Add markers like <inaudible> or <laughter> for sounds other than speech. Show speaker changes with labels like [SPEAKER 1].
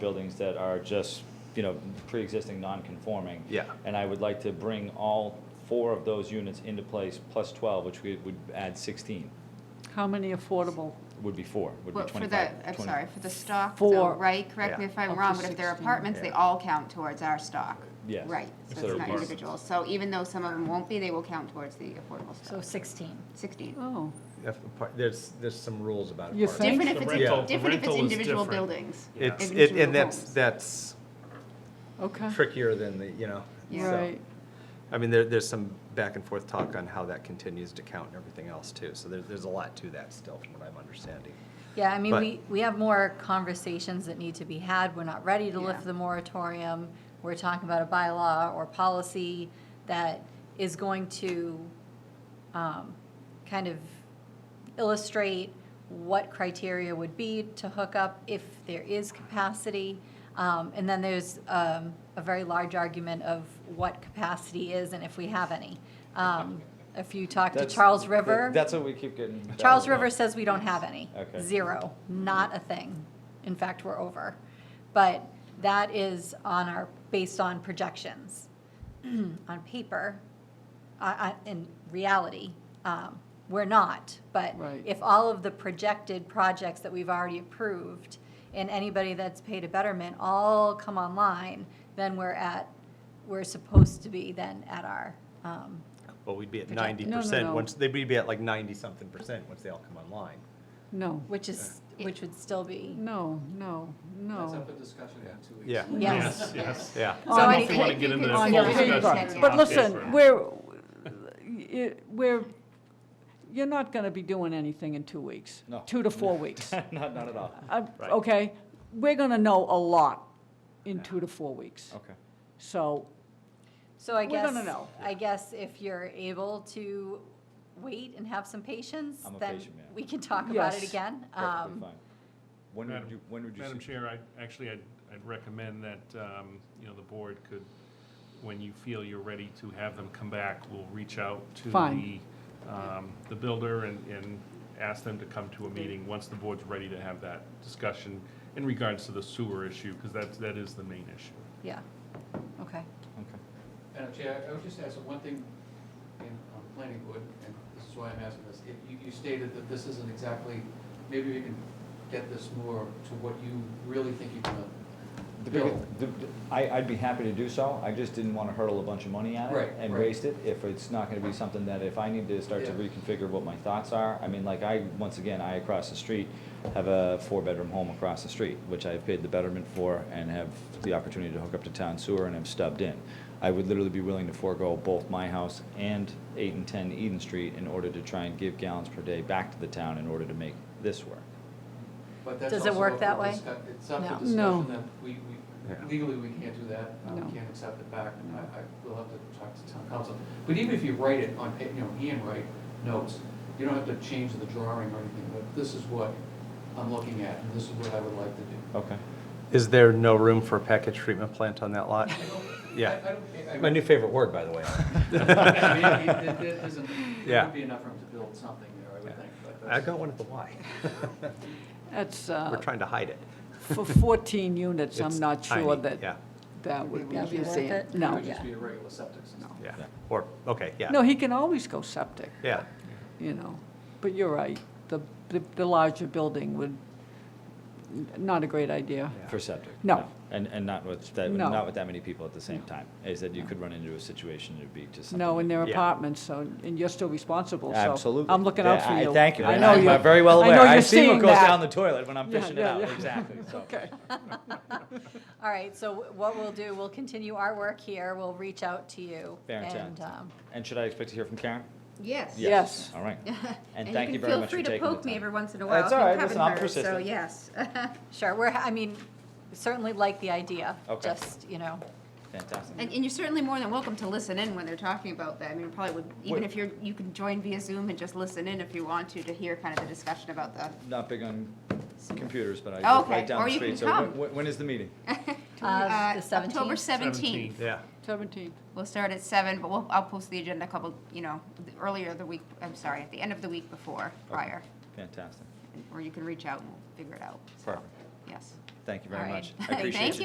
[SPEAKER 1] buildings that are just, you know, pre-existing non-conforming.
[SPEAKER 2] Yeah.
[SPEAKER 1] And I would like to bring all four of those units into place, plus 12, which we would add 16,
[SPEAKER 3] How many affordable?
[SPEAKER 1] would be four, would be
[SPEAKER 4] Well,
[SPEAKER 1] 25.
[SPEAKER 4] for the, I'm
[SPEAKER 1] 20
[SPEAKER 4] sorry, for the stock, though,
[SPEAKER 3] Four.
[SPEAKER 4] right? Correct me
[SPEAKER 2] Yeah.
[SPEAKER 4] if I'm
[SPEAKER 3] Up
[SPEAKER 4] wrong,
[SPEAKER 3] to
[SPEAKER 4] but if they're
[SPEAKER 3] 16.
[SPEAKER 4] apartments, they
[SPEAKER 2] Yeah.
[SPEAKER 4] all count towards our stock.
[SPEAKER 1] Yes.
[SPEAKER 4] Right,
[SPEAKER 1] Instead
[SPEAKER 4] so
[SPEAKER 1] of
[SPEAKER 4] it's not
[SPEAKER 1] apartments.
[SPEAKER 4] individual. So even though some of them won't be, they will count towards the affordable
[SPEAKER 5] So
[SPEAKER 4] stock.
[SPEAKER 5] 16.
[SPEAKER 4] Sixteen.
[SPEAKER 3] Oh,
[SPEAKER 2] If apart- There's, there's some rules about
[SPEAKER 3] You
[SPEAKER 2] apartments.
[SPEAKER 3] think?
[SPEAKER 4] Different if
[SPEAKER 6] The
[SPEAKER 4] it's,
[SPEAKER 6] rental- the
[SPEAKER 4] different if it's
[SPEAKER 6] rental is
[SPEAKER 4] individual
[SPEAKER 6] different.
[SPEAKER 4] buildings.
[SPEAKER 2] It's, it-
[SPEAKER 4] Individual
[SPEAKER 2] and that's,
[SPEAKER 4] homes.
[SPEAKER 2] that's
[SPEAKER 3] okay,
[SPEAKER 2] trickier than the, you know.
[SPEAKER 4] Yeah.
[SPEAKER 2] so-
[SPEAKER 3] right.
[SPEAKER 2] I mean, there, there's some back and forth talk on how that continues to count and everything else too. So there's, there's a lot to that still from what I'm understanding.
[SPEAKER 5] Yeah, I mean,
[SPEAKER 2] But-
[SPEAKER 5] we, we have more conversations that need to be had. We're not ready to lift
[SPEAKER 4] Yeah.
[SPEAKER 5] the moratorium. We're talking about a bylaw or policy that is going to um, kind of illustrate what criteria would be to hook up if there is capacity. Um, And then there's um, a very large argument of what capacity is and if we have any. Um, If you talk to
[SPEAKER 1] That's-
[SPEAKER 5] Charles River.
[SPEAKER 1] That's what we keep getting.
[SPEAKER 5] Charles
[SPEAKER 1] battled <laughs>
[SPEAKER 5] River
[SPEAKER 1] about.
[SPEAKER 5] says we don't have any.
[SPEAKER 1] Okay.
[SPEAKER 5] Zero, not a thing. In fact, we're over. But that is on our, based on projections. <clears throat> On paper, I- I- in reality, um, we're not. But
[SPEAKER 3] Right.
[SPEAKER 5] if all of the projected projects that we've already approved and anybody that's paid a betterment all come online, then we're at, we're supposed to be then at our, um,
[SPEAKER 2] Well, we'd be at
[SPEAKER 5] Project-
[SPEAKER 2] ninety
[SPEAKER 3] No, no,
[SPEAKER 2] percent,
[SPEAKER 3] no.
[SPEAKER 2] once, they'd be at like ninety-something percent once they all come online.
[SPEAKER 3] No,
[SPEAKER 5] which is, which would still be.
[SPEAKER 3] no, no,
[SPEAKER 5] Oh.
[SPEAKER 7] That's
[SPEAKER 3] no.
[SPEAKER 7] up for discussion in two weeks.
[SPEAKER 2] Yeah,
[SPEAKER 5] Yes.
[SPEAKER 6] Yes,
[SPEAKER 2] yeah.
[SPEAKER 5] So I
[SPEAKER 6] if you wanna get into that
[SPEAKER 3] On
[SPEAKER 6] full
[SPEAKER 3] paper.
[SPEAKER 6] discussion.
[SPEAKER 3] But
[SPEAKER 6] On
[SPEAKER 3] listen,
[SPEAKER 6] paper.
[SPEAKER 3] we're, y- we're, you're not going to be doing anything in two weeks.
[SPEAKER 1] No.
[SPEAKER 3] Two to
[SPEAKER 2] <laughs>
[SPEAKER 3] four weeks.
[SPEAKER 1] Not, not at all.
[SPEAKER 3] Uh,
[SPEAKER 2] Right.
[SPEAKER 3] Okay, we're going to know a lot in two to four
[SPEAKER 2] Oh.
[SPEAKER 3] weeks.
[SPEAKER 1] Okay.
[SPEAKER 3] So,
[SPEAKER 5] So I
[SPEAKER 3] We're
[SPEAKER 5] guess,
[SPEAKER 3] gonna know.
[SPEAKER 5] I guess if you're able to wait and have some patience,
[SPEAKER 1] I'm a
[SPEAKER 5] then
[SPEAKER 1] patient man.
[SPEAKER 5] we can talk about it
[SPEAKER 3] Yes.
[SPEAKER 5] again.
[SPEAKER 1] Perfectly
[SPEAKER 5] Um,
[SPEAKER 1] fine. When would
[SPEAKER 6] Madam-
[SPEAKER 1] you, when would you?
[SPEAKER 6] Madam
[SPEAKER 1] su-
[SPEAKER 6] Chair, I, actually, I'd, I'd recommend that, um, you know, the board could, when you feel you're ready to have them come back, we'll reach out to the,
[SPEAKER 3] Fine.
[SPEAKER 6] um, the builder and, and ask them to come to a meeting once the board's ready to have that discussion in regards to the sewer issue, because that's, that is the main issue.
[SPEAKER 5] Yeah, okay.
[SPEAKER 1] Okay.
[SPEAKER 7] Madam Chair, I would just ask one thing in, on the planning board, and this is why I'm asking this. If You, you stated that this isn't exactly, maybe we can get this more to what you really think you're gonna
[SPEAKER 1] The big,
[SPEAKER 7] build.
[SPEAKER 1] the, I, I'd be happy to do so, I just didn't wanna hurdle a bunch of money at
[SPEAKER 7] Right,
[SPEAKER 1] it and
[SPEAKER 7] right.
[SPEAKER 1] waste it, if it's not gonna be something that if I need to start to
[SPEAKER 7] Yeah.
[SPEAKER 1] reconfigure what my thoughts are, I mean, like, I, once again, I across the street have a four-bedroom home across the street, which I've paid the betterment for and have the opportunity to hook up to town sewer and have stubbed in. I would literally be willing to forego both my house and eight and ten Eden Street in order to try and give gallons per day back to the town in order to make this work.
[SPEAKER 7] But that's
[SPEAKER 5] Does it
[SPEAKER 7] also
[SPEAKER 5] work
[SPEAKER 7] up for
[SPEAKER 5] that way?
[SPEAKER 7] discu- It's up
[SPEAKER 5] No.
[SPEAKER 7] for
[SPEAKER 3] No.
[SPEAKER 7] discussion that we,
[SPEAKER 2] Yeah.
[SPEAKER 7] we, legally, we can't do that. Uh,
[SPEAKER 3] No.
[SPEAKER 7] We can't accept it back. I, I, we'll have to talk to town council. But even if you write it on, pa- you know, handwrite notes, you don't have to change the drawing or anything, but this is what I'm looking at, and this is what I would like to do.
[SPEAKER 1] Okay.
[SPEAKER 2] Is there no room for a package treatment plant on that lot? Yeah.
[SPEAKER 7] I- I don't- I- I-
[SPEAKER 2] My <laughs> new favorite word, by the way.
[SPEAKER 7] I mean, it- it- there- there's an- There
[SPEAKER 2] Yeah.
[SPEAKER 7] would be enough room to build something there, I would think, but
[SPEAKER 2] <laughs> I
[SPEAKER 7] that's.
[SPEAKER 2] got one at the Y.
[SPEAKER 3] that's,
[SPEAKER 2] We're
[SPEAKER 3] uh,
[SPEAKER 2] trying to hide it.
[SPEAKER 3] for 14 units, I'm
[SPEAKER 2] It's
[SPEAKER 3] not sure
[SPEAKER 2] tiny,
[SPEAKER 3] that
[SPEAKER 2] Yeah,
[SPEAKER 3] that would be
[SPEAKER 5] That'd be worth
[SPEAKER 3] easy.
[SPEAKER 5] it?
[SPEAKER 7] It
[SPEAKER 3] No.
[SPEAKER 7] would just be a regular septic system.
[SPEAKER 2] yeah. Or, okay, yeah.
[SPEAKER 3] No, he can always go septic.
[SPEAKER 2] Yeah.
[SPEAKER 3] you know, but you're right, the, the- the larger building would, not a great idea.
[SPEAKER 2] Yeah.
[SPEAKER 1] For septic?
[SPEAKER 3] No.
[SPEAKER 1] And, and not with, that
[SPEAKER 3] No.
[SPEAKER 1] not with that many people at the same time, is that you could run into a situation, it'd be just something.
[SPEAKER 3] No, and they're
[SPEAKER 2] Yeah.
[SPEAKER 3] apartments, so, and you're still responsible, so.
[SPEAKER 1] Absolutely.
[SPEAKER 3] I'm looking out
[SPEAKER 1] Yeah,
[SPEAKER 3] for
[SPEAKER 1] I-
[SPEAKER 3] you.
[SPEAKER 1] Thank you,
[SPEAKER 3] I
[SPEAKER 1] and
[SPEAKER 3] know
[SPEAKER 1] I'm
[SPEAKER 3] you.
[SPEAKER 1] uh, very well
[SPEAKER 3] I know
[SPEAKER 1] aware, I
[SPEAKER 3] you're
[SPEAKER 1] see what
[SPEAKER 3] seeing
[SPEAKER 1] goes
[SPEAKER 3] that.
[SPEAKER 1] down the toilet when I'm
[SPEAKER 3] Yeah,
[SPEAKER 1] fishing it
[SPEAKER 3] yeah,
[SPEAKER 1] out,
[SPEAKER 3] yeah.
[SPEAKER 1] exactly,
[SPEAKER 3] <laughs>
[SPEAKER 1] so. <laughs>
[SPEAKER 3] Okay,
[SPEAKER 5] All right, so what we'll do, we'll continue our work here. We'll reach out to you.
[SPEAKER 1] Fair intent.
[SPEAKER 5] and, um,
[SPEAKER 1] And should I expect to hear from Karen?
[SPEAKER 4] Yes.
[SPEAKER 3] yes.
[SPEAKER 4] <laughs>
[SPEAKER 1] All right. And
[SPEAKER 4] you
[SPEAKER 1] thank
[SPEAKER 4] can
[SPEAKER 1] you very
[SPEAKER 4] feel
[SPEAKER 1] much for
[SPEAKER 4] free to
[SPEAKER 1] taking the
[SPEAKER 4] poke me
[SPEAKER 1] time.
[SPEAKER 4] every once in a
[SPEAKER 1] That's
[SPEAKER 4] while if
[SPEAKER 1] all
[SPEAKER 4] you
[SPEAKER 1] right.
[SPEAKER 4] haven't
[SPEAKER 1] Listen, I'm
[SPEAKER 4] heard, so
[SPEAKER 1] persistent.
[SPEAKER 4] yes. <laughs>
[SPEAKER 5] Sure, we're, I mean, certainly like the idea.
[SPEAKER 1] Okay.
[SPEAKER 5] Just, you know,
[SPEAKER 1] Fantastic.
[SPEAKER 4] And, and you're certainly more than welcome to listen in when they're talking about that. I mean, probably would, even
[SPEAKER 1] Wait.
[SPEAKER 4] if you're, you can join via Zoom and just listen in if you want to, to hear kind of the discussion about the,
[SPEAKER 1] Not big on computers, but I
[SPEAKER 4] Oh,
[SPEAKER 1] live right
[SPEAKER 4] okay.
[SPEAKER 1] down
[SPEAKER 4] Or
[SPEAKER 1] the
[SPEAKER 4] you
[SPEAKER 1] street,
[SPEAKER 4] can
[SPEAKER 1] so when-
[SPEAKER 4] come.
[SPEAKER 1] when, when is the meeting?
[SPEAKER 5] uh,
[SPEAKER 4] Uh,
[SPEAKER 5] the
[SPEAKER 4] October
[SPEAKER 5] 17th.
[SPEAKER 4] 17th.
[SPEAKER 2] Yeah.
[SPEAKER 3] 17.
[SPEAKER 4] We'll start at seven, but we'll, I'll post the agenda a couple, you know, the- earlier the week, I'm sorry, at the end of the week before, <laughs> prior.
[SPEAKER 1] Fantastic.
[SPEAKER 4] Or you can reach out and we'll figure it out. So,
[SPEAKER 1] Perfect.
[SPEAKER 4] Yes.
[SPEAKER 1] Thank
[SPEAKER 4] <laughs> Thank you very
[SPEAKER 8] All right.
[SPEAKER 4] much. I appreciate
[SPEAKER 1] Thank
[SPEAKER 4] you.